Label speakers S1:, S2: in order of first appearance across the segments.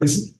S1: It's,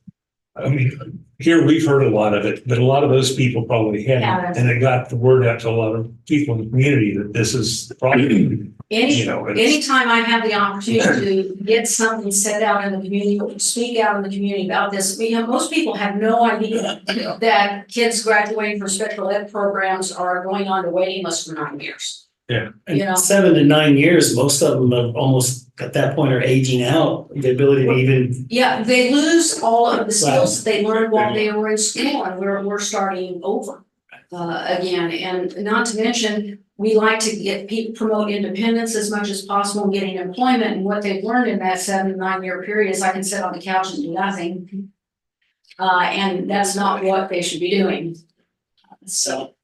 S1: I mean, here we've heard a lot of it, but a lot of those people probably
S2: Yeah,
S1: hadn't.
S2: that's-
S1: And it got the word out to a lot of people in the community that this is the problem, you
S2: Any,
S1: know. it's-
S2: anytime I have the opportunity to get something said out in the community, or to speak out in the community about this, we have, most people have no idea that kids graduating from special ed programs are going on to waiting lists for nine years.
S1: Yeah.
S2: You know?
S3: And seven to nine years, most of them have almost at that point are aging out, the ability to even,
S2: Yeah, they lose all of the skills that they learned while
S1: Wow.
S2: they were in school and we're, we're starting over. Uh, again, and not to mention, we like to get people promote independence as much as possible, in getting employment and what they've learned in that seven, nine year period is I can sit on the couch and do nothing. Uh, and that's not what they should be doing. So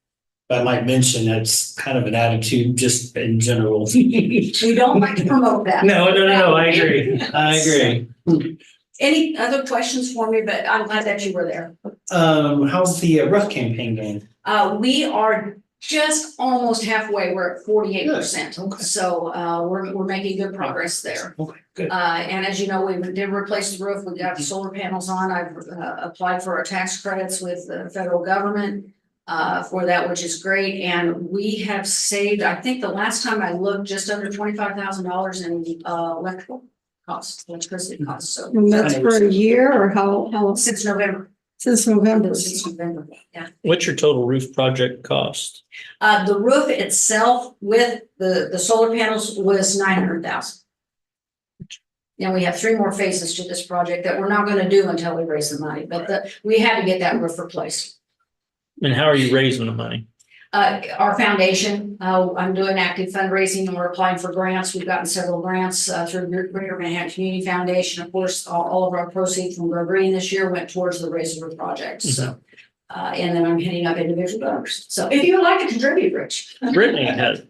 S3: I might mention, that's kind of an attitude just in general.
S2: we don't like to promote that.
S3: No, no, no, no, I agree. I agree.
S2: Any other questions for me, but I'm glad that you were there.
S3: Um, how's the uh, rough campaign going?
S2: Uh, we are just almost halfway, we're at forty-eight percent,
S3: okay.
S2: so, uh, we're, we're making good progress there.
S3: Okay, good.
S2: Uh, and as you know, we did replace the roof, we got solar panels on, I've, uh, applied for our tax credits with the federal government. Uh, for that, which is great, and we have saved, I think the last time I looked, just under twenty-five thousand dollars in, uh, electrical costs, electricity costs, so.
S4: And that's for a year or how, how,
S2: Since November,
S4: since November?
S2: since November, yeah.
S5: What's your total roof project cost?
S2: Uh, the roof itself with the, the solar panels was nine hundred thousand. Now we have three more phases to this project that we're not gonna do until we raise the money, but the, we had to get that roof replaced.
S5: And how are you raising the money?
S2: Uh, our foundation, uh, I'm doing active fundraising and we're applying for grants. We've gotten several grants, uh, through Gre- Greater Manhattan Community Foundation. Of course, all, all of our proceeds from Grow Green this year went towards the Raise the Roof project, so. Uh, and then I'm hitting up individual donors. So if you would like to contribute, Rich.
S5: Brittany has.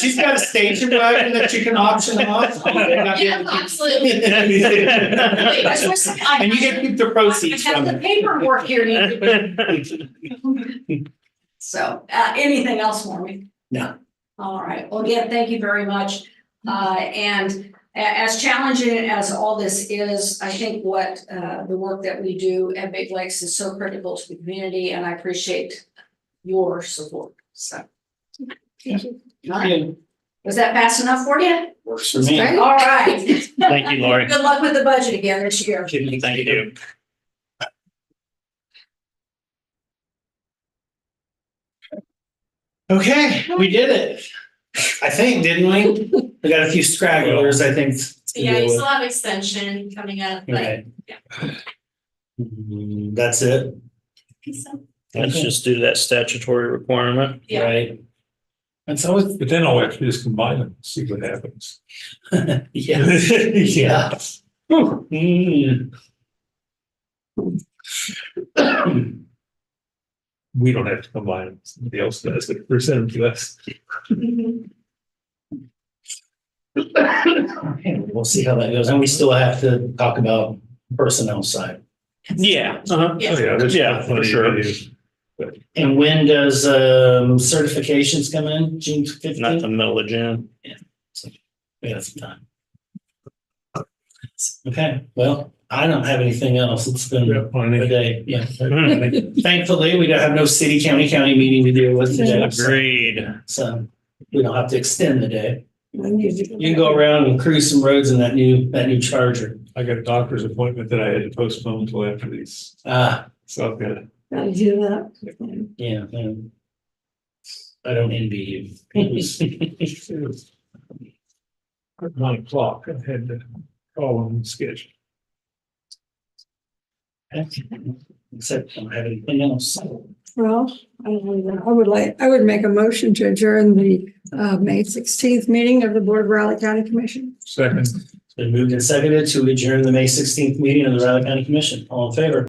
S3: She's got a station wagon that you can auction off.
S2: Yeah, absolutely.
S3: And you get to keep the proceeds
S2: I have
S3: from
S2: the
S3: it.
S2: paperwork here, you- so, uh, anything else for me?
S3: No.
S2: All right, well, again, thank you very much. Uh, and a- as challenging as all this is, I think what, uh, the work that we do at Big Lakes is so critical to the community, and I appreciate your support, so. All right.
S3: Yeah,
S2: Was that fast enough for you?
S3: Works for me.
S2: All right,
S5: Thank you, Lori.
S2: good luck with the budget again this year.
S5: Thank you.
S3: Okay, we did it. I think, didn't we? We got a few stragglers, I think. to
S6: Yeah,
S3: deal
S6: you
S3: with.
S6: still have extension coming up, but.
S3: Okay. Mm, That's it,
S5: Let's just do that statutory requirement.
S6: Yeah.
S3: right? That's always,
S1: But then all we have to do is combine them, see what happens.
S3: yeah, yeah. Mm.
S1: We don't have to combine them, somebody else does, but present them to us.
S3: Okay, We'll see how that goes, and we still have to talk about personnel side.
S5: Yeah. uh-huh.
S1: Oh, yeah, there's
S5: Yeah, for
S1: plenty to
S5: sure.
S1: do.
S3: And when does um certifications come in? June
S5: Not the
S3: fifteenth?
S5: middle of June.
S3: We got some time. Okay, well, I don't have anything else. It's been
S1: Yeah,
S3: a
S1: plenty.
S3: day, yeah.
S5: Hmm,
S3: Thankfully, we don't have no city, county, county meeting to deal with today,
S5: Agreed.
S3: so we don't have to extend the day.
S4: I need to
S3: You can go around and cruise some roads in that new, that new Charger.
S1: I got a doctor's appointment that I had to postpone until after these,
S3: Ah,
S1: so I've got.
S4: Gotta do that.
S3: yeah. um, I don't envy you.
S1: At nine o'clock, I had to call on schedule.
S3: Except I don't have anything else.
S4: Well, I don't know that. I would like, I would make a motion to adjourn the, uh, May sixteenth meeting of the Board of Raleigh County Commission.
S1: Second.
S3: It's been moved and seconded to adjourn the May sixteenth meeting of the Riley County Commission. All in favor?